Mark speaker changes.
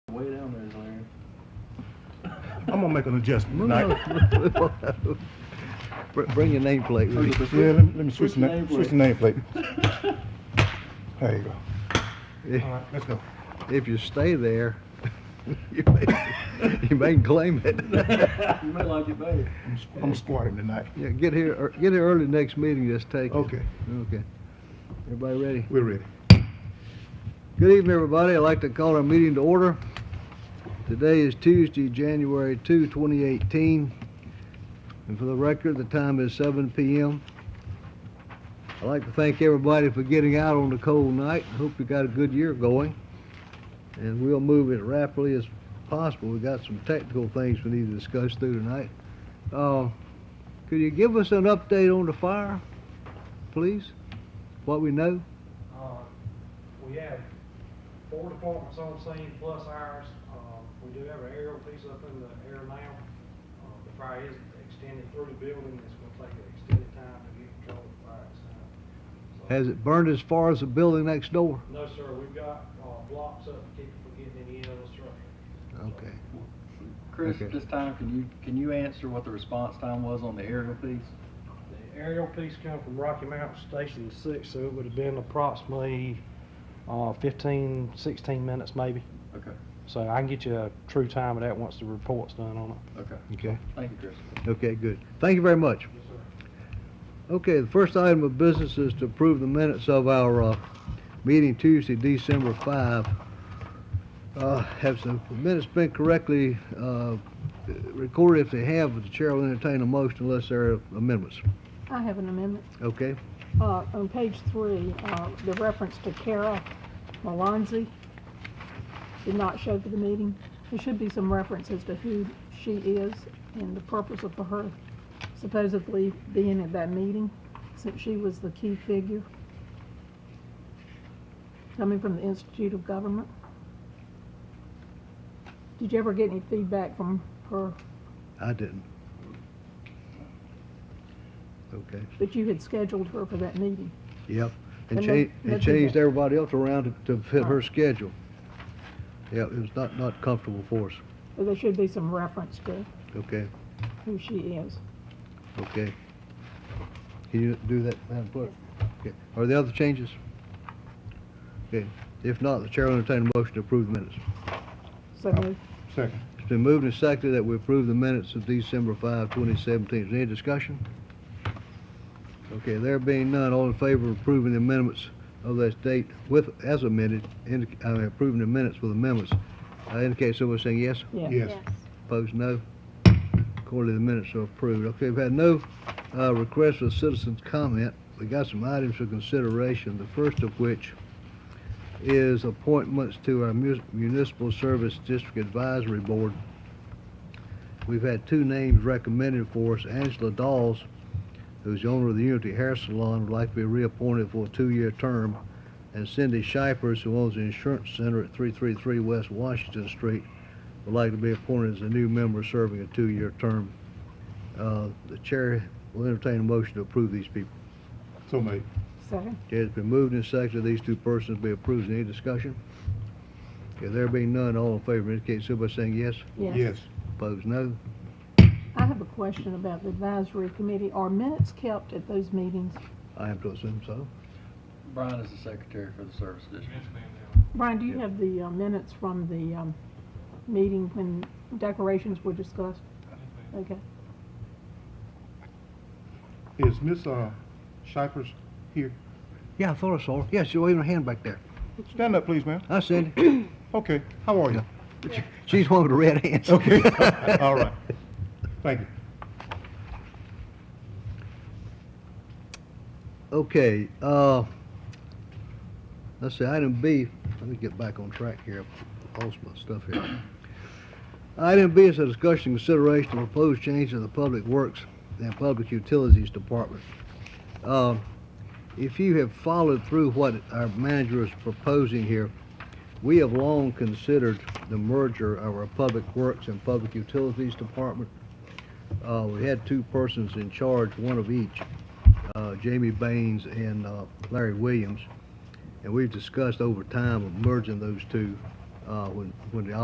Speaker 1: I'm gonna make an adjustment tonight.
Speaker 2: Br- Bring your nameplate with you.
Speaker 1: Yeah, let me, let me
Speaker 3: Switch
Speaker 1: switch, the name,
Speaker 3: nameplate.
Speaker 1: switch the nameplate. There you go.
Speaker 2: If-
Speaker 1: All right, let's go.
Speaker 2: If you stay there, you may, you may claim it.
Speaker 3: You may like it better.
Speaker 1: I'm, s- I'm squatting tonight.
Speaker 2: Yeah, get here, ear- get here early next meeting, just take it.
Speaker 1: Okay.
Speaker 2: Okay. Everybody ready?
Speaker 1: We're ready.
Speaker 2: Good evening, everybody. I'd like to call our meeting to order. Today is Tuesday, January 2, 2018. And for the record, the time is 7 p.m. I'd like to thank everybody for getting out on the cold night. Hope you got a good year going. And we'll move as rapidly as possible. We've got some technical things we need to discuss through tonight. Uh, Could you give us an update on the fire, please? What we know?
Speaker 4: Uh, We have four departments on scene plus ours. Uh, We do have an aerial piece up in the air now. Uh, The fire is extended through the building. It's gonna take an extended time to get control of the fire. inside. So-
Speaker 2: Has it burned as far as the building next door?
Speaker 4: No, sir. We've got uh, blocks up to keep it from getting any other structure.
Speaker 2: Okay.
Speaker 3: Chris,
Speaker 2: Okay.
Speaker 3: at this time, can you, can you answer what the response time was on the aerial piece?
Speaker 4: The aerial piece come from Rocky Mountain Station Six, so it would have been approximately uh, 15, 16 minutes maybe.
Speaker 3: Okay,
Speaker 4: So I can get you a true time of that once the report's done on it.
Speaker 3: okay.
Speaker 2: Okay.
Speaker 3: Thank you, Chris.
Speaker 2: Okay, good. Thank you very much.
Speaker 4: Yes, sir.
Speaker 2: Okay, the first item of business is to approve the minutes of our uh, meeting Tuesday, December 5. Uh, Have the minutes been correctly uh, recorded? If they have, the chair will entertain a motion unless there are amendments.
Speaker 5: I have an amendment.
Speaker 2: Okay?
Speaker 5: Uh, on page three, uh, the reference to Kara Malonzi did not show for the meeting. There should be some reference as to who she is and the purpose of her supposedly being at that meeting, since she was the key figure coming from the Institute of Government. Did you ever get any feedback from her?
Speaker 2: I didn't. Okay,
Speaker 5: But you had scheduled her for that meeting.
Speaker 2: yep. And
Speaker 5: And
Speaker 2: cha-
Speaker 5: then-
Speaker 2: and
Speaker 5: then-
Speaker 2: changed everybody else around to- to fit her
Speaker 5: Right.
Speaker 2: schedule. Yeah, it was not not comfortable for us.
Speaker 5: But there should be some reference to
Speaker 2: Okay?
Speaker 5: who she is.
Speaker 2: Okay. Can you do that, Madam Clerk? Okay. Are there other changes? Okay. If not, the chair will entertain a motion to approve the minutes.
Speaker 5: So moved.
Speaker 1: Second.
Speaker 2: It's been moved and seconded that we approve the minutes of December 5, 2017. Is there any discussion? Okay, there being none, all in favor of approving the amendments of that date with, as amended, indic- I mean, approving the minutes with amendments, uh, indicate so by saying yes,
Speaker 5: Yeah.
Speaker 1: Yes.
Speaker 2: opposed no. Accordingly, the minutes are approved. Okay, we've had no uh, requests for citizens' comment. We got some items for consideration, the first of which is appointments to our Mus- Municipal Service District Advisory Board. We've had two names recommended for us. Angela Dawes, who's the owner of the Unity Hair Salon, would like to be reappointed for a two-year term, and Cindy Shipers, who owns the Insurance Center at 333 West Washington Street, would like to be appointed as a new member serving a two-year term. Uh, The chair will entertain a motion to approve these people.
Speaker 1: So made.
Speaker 5: Second?
Speaker 2: Okay, it's been moved and seconded, these two persons be approved. Any discussion? Okay, there being none, all in favor indicate so by saying yes.
Speaker 1: Yes.
Speaker 2: Opposed, no.
Speaker 5: I have a question about the advisory committee. Are minutes kept at those meetings?
Speaker 2: I have to assume so.
Speaker 3: Brian is the secretary for the service district.
Speaker 5: Brian, do you have the uh, minutes from the um, meeting when decorations were discussed? Okay.
Speaker 1: Is Miss, uh, Shipers here?
Speaker 2: Yeah, I thought I saw her. Yeah, she's waving her hand back there.
Speaker 1: Stand up, please, ma'am.
Speaker 2: I said, it.
Speaker 1: Okay, how are you?
Speaker 2: she's one with the red hands.
Speaker 1: Okay, all right. Thank you.
Speaker 2: Okay, uh, let's see, item B, let me get back on track here, I lost my stuff here. Item B is a discussion and consideration of proposed change in the Public Works and Public Utilities Department. Uh, If you have followed through what our manager is proposing here, we have long considered the merger of our Public Works and Public Utilities Department. Uh, we had two persons in charge, one of each uh, Jamie Baines and uh, Larry Williams, and we've discussed over time of merging those two uh, when when the